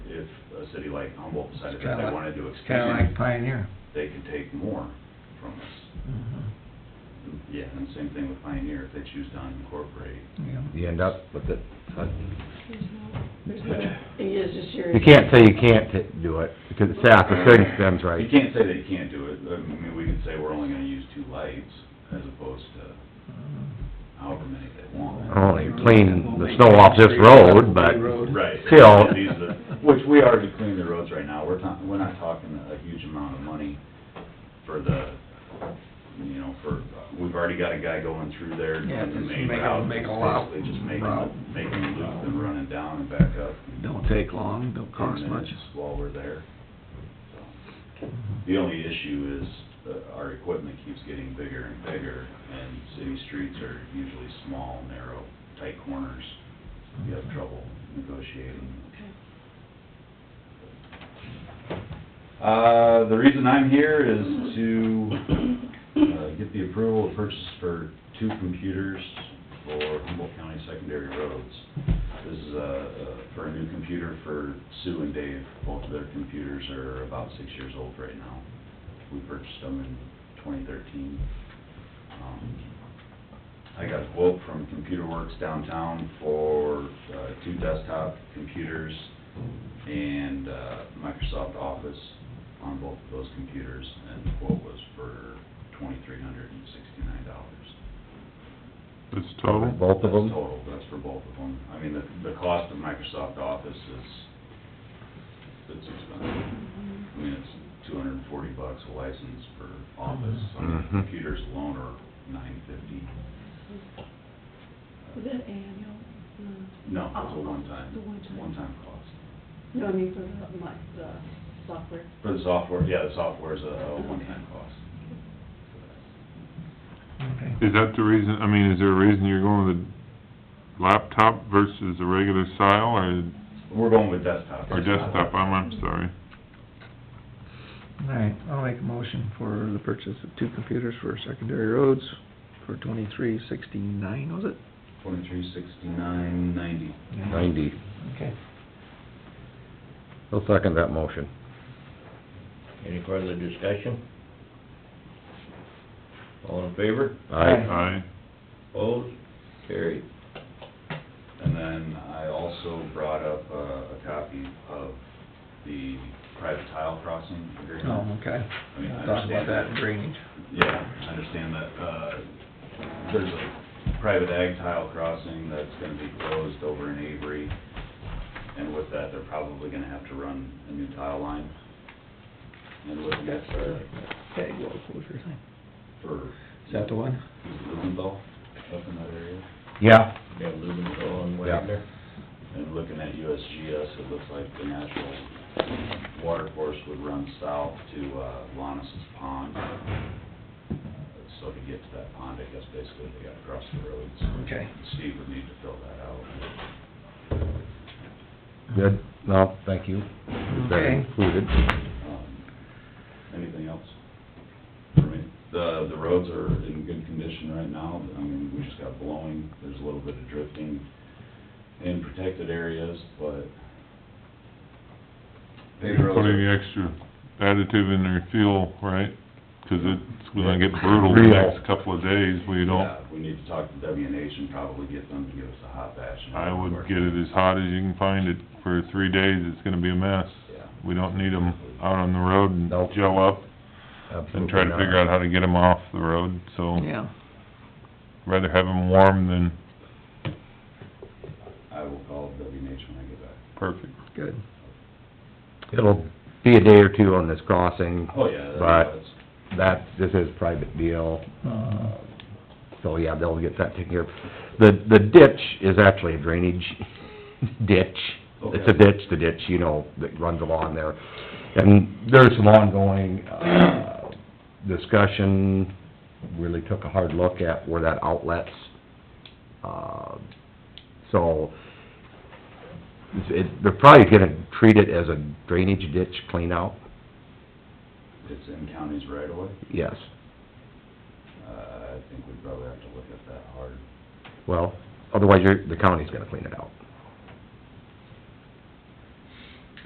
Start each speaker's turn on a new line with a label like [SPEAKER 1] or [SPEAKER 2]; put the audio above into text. [SPEAKER 1] like Humboldt decided
[SPEAKER 2] It's
[SPEAKER 1] that
[SPEAKER 2] kinda
[SPEAKER 1] they
[SPEAKER 2] like-
[SPEAKER 1] wanted to
[SPEAKER 2] Kinda like
[SPEAKER 1] expand,
[SPEAKER 2] Pioneer.
[SPEAKER 1] they could take more from us.
[SPEAKER 2] Mhm.
[SPEAKER 1] Yeah, and same thing with Pioneer, if they choose to unincorporate.
[SPEAKER 2] Yeah.
[SPEAKER 3] You end up with it, uh,
[SPEAKER 4] There's no, there's no, it is just serious.
[SPEAKER 3] you can't say you can't t- do it, because it's south, the city spends right.
[SPEAKER 1] You can't say that you can't do it, I mean, we could say we're only gonna use two lights as opposed to however many they want.
[SPEAKER 3] Only clean the snow off this road, but
[SPEAKER 1] Right.
[SPEAKER 3] still,
[SPEAKER 1] These are- Which we already clean the roads right now, we're not, we're not talking a huge amount of money for the, you know, for, we've already got a guy going through there. doing
[SPEAKER 2] Yeah,
[SPEAKER 1] the
[SPEAKER 2] just
[SPEAKER 1] main
[SPEAKER 2] make a-
[SPEAKER 1] route,
[SPEAKER 2] make a lot-
[SPEAKER 1] Basically just making,
[SPEAKER 2] route.
[SPEAKER 1] the- making the loop and running down and back up.
[SPEAKER 2] Don't take long, don't cost
[SPEAKER 1] Ten
[SPEAKER 2] much.
[SPEAKER 1] minutes While we're there. So, The only issue is, uh, our equipment keeps getting bigger and bigger, and city streets are usually small, narrow, tight corners. You have trouble negotiating. Uh, the reason I'm here is to, uh, get the approval of purchase for two computers for Humboldt County Secondary Roads. This is, uh, uh, for a new computer for Sue and Dave. Both of their computers are about six years old right now. We purchased them in twenty thirteen. Um, I got a quote from Computer Works downtown for, uh, two desktop computers and, uh, Microsoft Office on both of those computers, and the quote was for twenty-three hundred and sixty-nine dollars.
[SPEAKER 5] It's total?
[SPEAKER 3] both
[SPEAKER 1] That's
[SPEAKER 3] of them,
[SPEAKER 1] total, that's for both of them. I mean, the, the cost of Microsoft Office is, it's expensive. I mean, it's two hundred and forty bucks a license for Office. I mean,
[SPEAKER 3] Mhm.
[SPEAKER 1] computers alone are nine fifty.
[SPEAKER 4] Is that annual? No.
[SPEAKER 1] No, it's a one-time,
[SPEAKER 4] Oh. The one-time.
[SPEAKER 1] one-time cost.
[SPEAKER 4] No, I mean for the, my, the software.
[SPEAKER 1] For the software, yeah, the software is a a one-time cost.
[SPEAKER 2] Okay.
[SPEAKER 5] Is that the reason, I mean, is there a reason you're going with laptop versus a regular style or,
[SPEAKER 1] We're going with desktop.
[SPEAKER 5] or desktop? I'm, I'm sorry.
[SPEAKER 2] All right, I'll make a motion for the purchase of two computers for secondary roads for twenty-three sixty-nine, was it?
[SPEAKER 1] Twenty-three sixty-nine ninety.
[SPEAKER 3] ninety.
[SPEAKER 2] Okay.
[SPEAKER 3] I'll second that motion.
[SPEAKER 6] Any further discussion? All in favor?
[SPEAKER 3] Aye.
[SPEAKER 5] Aye.
[SPEAKER 6] Opposed? Carried.
[SPEAKER 1] And then I also brought up uh, a copy of the private tile crossing
[SPEAKER 2] Oh,
[SPEAKER 1] agreement.
[SPEAKER 2] okay.
[SPEAKER 1] I mean, I
[SPEAKER 2] We'll Talk about
[SPEAKER 1] understand
[SPEAKER 2] that in
[SPEAKER 1] that.
[SPEAKER 2] drainage.
[SPEAKER 1] Yeah, I understand that, uh, there's a private ag tile crossing that's gonna be closed over in Avery. And with that, they're probably gonna have to run a new tile line. And with that, uh,
[SPEAKER 2] Tag wall closure thing.
[SPEAKER 1] for.
[SPEAKER 2] Is that the one?
[SPEAKER 1] Lumendahl, up in that area.
[SPEAKER 3] Yeah,
[SPEAKER 6] Yeah, Lumenthal and Wagner.
[SPEAKER 1] And looking at USGS, it looks like the natural water course would run south to uh, Lannis's Pond. So to get to that pond, I guess basically they gotta cross the roads.
[SPEAKER 2] Okay.
[SPEAKER 1] Steve would need to fill that out.
[SPEAKER 3] good, no, thank you. That
[SPEAKER 2] Okay.
[SPEAKER 3] included.
[SPEAKER 1] Um, Anything else? for me? The, the roads are in good condition right now. I mean, we just got blowing. There's a little bit of drifting in protected areas, but. paved roads are-
[SPEAKER 5] Putting extra additive in their fuel, right? 'Cause it's gonna get brutal the
[SPEAKER 3] Real.
[SPEAKER 5] next couple of days. We
[SPEAKER 1] Yeah,
[SPEAKER 5] don't,
[SPEAKER 1] we need to talk to W and H and probably get them to give us a hot batch.
[SPEAKER 5] I would get it as hot as you can find it for three days. It's gonna be a mess.
[SPEAKER 1] Yeah.
[SPEAKER 5] We don't need them out on the road and
[SPEAKER 3] Nope.
[SPEAKER 5] gel up and try to
[SPEAKER 3] Absolutely
[SPEAKER 5] figure
[SPEAKER 3] not.
[SPEAKER 5] out how to get them off the road, so
[SPEAKER 2] Yeah.
[SPEAKER 5] rather have them warm than
[SPEAKER 1] I will call W and H when I get back.
[SPEAKER 5] perfect.
[SPEAKER 2] Good.
[SPEAKER 3] It'll be a day or two on this crossing,
[SPEAKER 1] Oh, yeah.
[SPEAKER 3] But- that, this is private deal,
[SPEAKER 2] Uh,
[SPEAKER 3] Um, so yeah, they'll get that taken care of. The, the ditch is actually a drainage ditch. It's a
[SPEAKER 1] Okay.
[SPEAKER 3] ditch, the ditch, you know, that runs along there. And there's some ongoing, uh, discussion, really took a hard look at where that outlet's. Uh, so, it's- it, they're probably gonna treat it as a drainage ditch cleanout,
[SPEAKER 1] It's in counties right away.
[SPEAKER 3] yes.
[SPEAKER 1] Uh, I think we probably have to look at that hard.
[SPEAKER 3] Well, otherwise you're, the county's gonna clean it out.